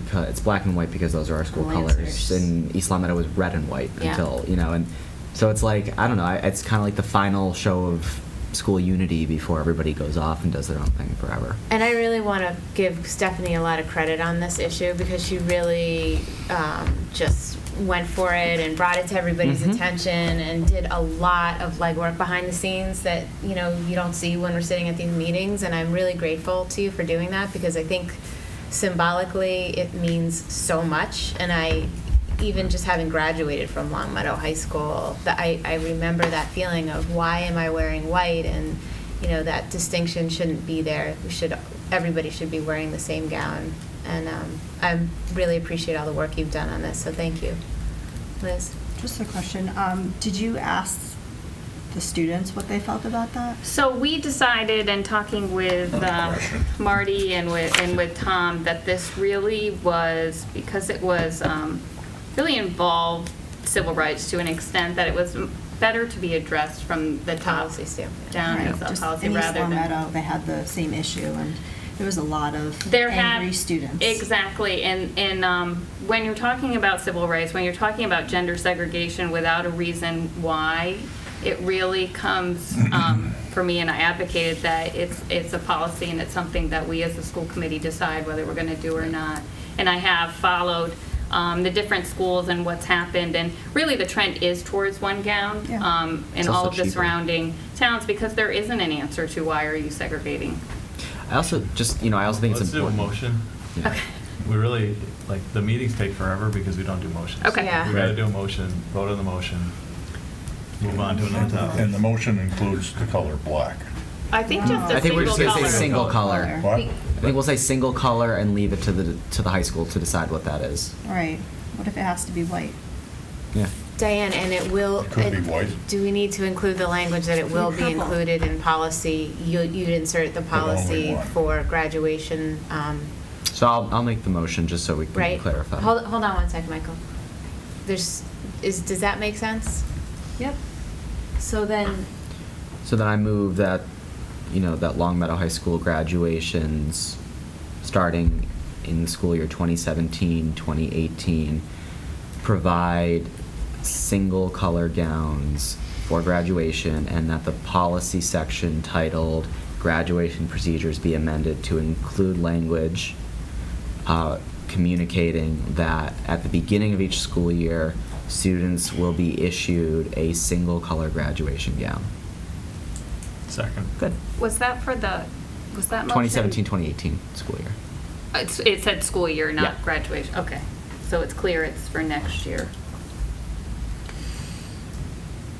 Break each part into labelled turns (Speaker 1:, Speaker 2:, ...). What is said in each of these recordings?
Speaker 1: because it's black and white because those are our school
Speaker 2: Lancers.
Speaker 1: colors. And East Long Meadow was red and white
Speaker 2: Yeah.
Speaker 1: until you know, and so it's like I don't know. I- It's kind of like the final show of school unity before everybody goes off and does their own thing forever.
Speaker 2: And I really want to give Stephanie a lot of credit on this issue because she really um, just went for it and brought it to everybody's
Speaker 1: Mhm.
Speaker 2: attention and did a lot of legwork behind the scenes that you know you don't see when we're sitting at these meetings. And I'm really grateful to you for doing that because I think symbolically it means so much. And I, even just having graduated from Longmeadow High School, that I, I remember that feeling of why am I wearing white and you know that distinction shouldn't be there. We should everybody should be wearing the same gown. And um, I really appreciate all the work you've done on this. So thank you, Liz.
Speaker 3: Just a question, um, did you ask the students what they felt about that?
Speaker 4: So we decided, in talking with um, Marty and with, and with Tom, that this really was, because it was, um, really involved civil rights to an extent, that it was better to be addressed from the top
Speaker 2: Policy standpoint.
Speaker 4: down
Speaker 3: Right,
Speaker 4: as a
Speaker 3: just
Speaker 4: policy
Speaker 3: in East
Speaker 4: rather than.
Speaker 3: Long Meadow, they had the same issue, and there was a lot of
Speaker 4: there have
Speaker 3: angry students.
Speaker 4: exactly and and um, when you're talking about civil rights when you're talking about gender segregation without a reason why it really comes um, for me and i advocated that it's it's a policy and it's something that we as a school committee decide whether we're going to do or not and i have followed um, the different schools and what's happened and really the trend is towards one gown
Speaker 3: Yeah.
Speaker 4: um,
Speaker 1: It's
Speaker 4: in all
Speaker 1: also
Speaker 4: of the
Speaker 1: cheaper.
Speaker 4: surrounding towns because there isn't an answer to why are you segregating
Speaker 1: I also just you know I also think
Speaker 5: Let's
Speaker 1: it's important.
Speaker 5: do a motion.
Speaker 1: Yeah.
Speaker 5: We really, like, the meetings take forever because we don't do motions.
Speaker 4: Okay.
Speaker 2: Yeah.
Speaker 5: We gotta
Speaker 6: Right.
Speaker 5: do a motion, vote on the motion, move on to another topic.
Speaker 6: And the motion includes the color black.
Speaker 4: i think just a
Speaker 1: Mm. I think we're just
Speaker 4: single
Speaker 1: gonna
Speaker 4: color.
Speaker 1: say single color.
Speaker 3: Color.
Speaker 6: What?
Speaker 1: I think we'll say single color and leave it to the to the high school to decide what that is.
Speaker 3: Right, what if it has to be white?
Speaker 1: Yeah.
Speaker 2: Diane, and it will.
Speaker 6: It could be white.
Speaker 2: Do we need to include the language that it will be
Speaker 3: Purple.
Speaker 2: included in policy? You, you'd insert the
Speaker 6: But only
Speaker 2: policy
Speaker 6: one.
Speaker 2: for graduation, um,
Speaker 1: So I'll I'll make the motion just so we can
Speaker 2: right?
Speaker 1: clarify.
Speaker 2: Hold, hold on one second, Michael. There's, is, does that make sense?
Speaker 3: Yep.
Speaker 2: So then,
Speaker 1: So then I move that, you know, that Long Meadow High School graduations starting in the school year 2017, 2018 provide single color gowns for graduation and that the policy section titled graduation procedures be amended to include language uh, communicating that at the beginning of each school year, students will be issued a single color graduation gown.
Speaker 5: Second.
Speaker 1: Good.
Speaker 4: Was that for the, was that motion? Uh,
Speaker 1: 2017, 2018 school year.
Speaker 4: It's- It said school year,
Speaker 1: Yeah.
Speaker 4: not graduation, okay. So it's clear it's for next year.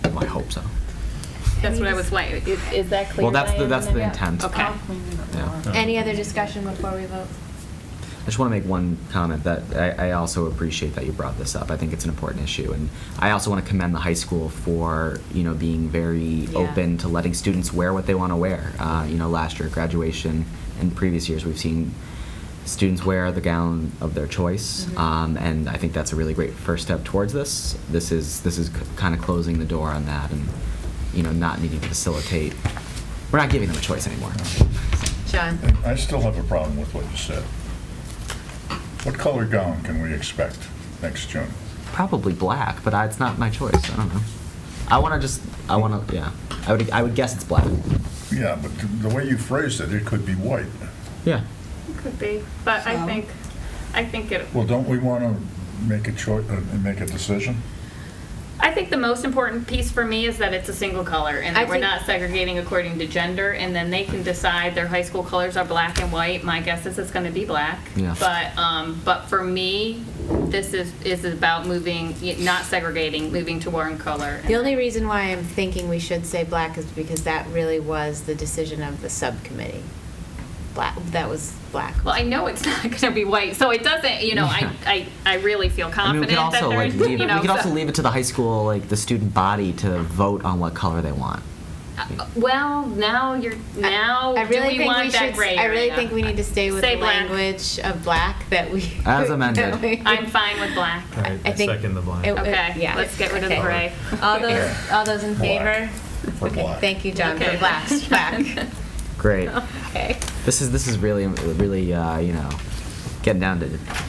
Speaker 1: Well, I hope so.
Speaker 4: That's what I was like, is is that clear?
Speaker 1: Well, that's the-
Speaker 4: Diane?
Speaker 1: that's the intent.
Speaker 4: Okay.
Speaker 1: Yeah.
Speaker 6: Uh,
Speaker 2: any other discussion before we vote?
Speaker 1: I just want to make one comment that I, I also appreciate that you brought this up. I think it's an important issue, and I also want to commend the high school for you know being very
Speaker 2: Yeah.
Speaker 1: open to letting students wear what they want to wear. Uh, you know, last year at graduation and previous years, we've seen students wear the gown of their choice,
Speaker 2: Mhm.
Speaker 1: um, and I think that's a really great first step towards this. This is this is kind of closing the door on that, and you know, not needing to facilitate. We're not giving them a choice anymore.
Speaker 2: Sean?
Speaker 6: And I still have a problem with what you said. What color gown can we expect next June?
Speaker 1: Probably black, but I, it's not my choice. I don't know. I want to just. I want to. Yeah. I would. I would guess it's black.
Speaker 6: Yeah, but th- the way you phrased it, it could be white.
Speaker 1: Yeah.
Speaker 4: Could be, but I
Speaker 3: So-
Speaker 4: think, I think it,
Speaker 6: Well, don't we want to make a choice, uh, make a decision?
Speaker 4: I think the most important piece for me is that it's a single color and
Speaker 2: I
Speaker 4: that we're
Speaker 2: think-
Speaker 4: not segregating according to gender. And then they can decide their high school colors are black and white. My guess is it's going to be black.
Speaker 1: Yeah.
Speaker 4: But, um, but for me, this is, is about moving, not segregating, moving to one color.
Speaker 2: The only reason why I'm thinking we should say black is because that really was the decision of the subcommittee. Black, that was black.
Speaker 4: Well, I know it's not going to be white, so it doesn't. You know,
Speaker 1: Yeah.
Speaker 4: I, I, I really feel
Speaker 1: I mean, we
Speaker 4: confident
Speaker 1: could also
Speaker 4: that
Speaker 1: like
Speaker 4: there's.
Speaker 1: leave.
Speaker 4: you
Speaker 1: It,
Speaker 4: know,
Speaker 1: we could also
Speaker 4: so-
Speaker 1: leave it to the high school, like the student body, to vote on what color they want.
Speaker 4: Uh, Well, now oh, you're now.
Speaker 2: I really
Speaker 4: do we
Speaker 2: think
Speaker 4: want
Speaker 2: we
Speaker 4: that
Speaker 2: should.
Speaker 4: gray
Speaker 2: I really
Speaker 4: area?
Speaker 2: think we need to stay with
Speaker 4: Say
Speaker 2: the
Speaker 4: black.
Speaker 2: language of black that we.
Speaker 1: As amended.
Speaker 2: that we-
Speaker 4: I'm fine with black.
Speaker 5: All right,
Speaker 2: I
Speaker 5: I
Speaker 2: think-
Speaker 5: second the
Speaker 2: it-
Speaker 5: blind.
Speaker 2: it-
Speaker 4: Okay,
Speaker 2: yeah.
Speaker 4: let's get rid of the
Speaker 2: Okay.
Speaker 4: gray.
Speaker 2: All those, all those in favor?
Speaker 6: Black. For
Speaker 2: Okay,
Speaker 6: black.
Speaker 2: thank you, John, for
Speaker 4: Okay.
Speaker 2: black, black.
Speaker 1: Great.
Speaker 4: Okay.
Speaker 1: This is this is really really uh, you know getting down to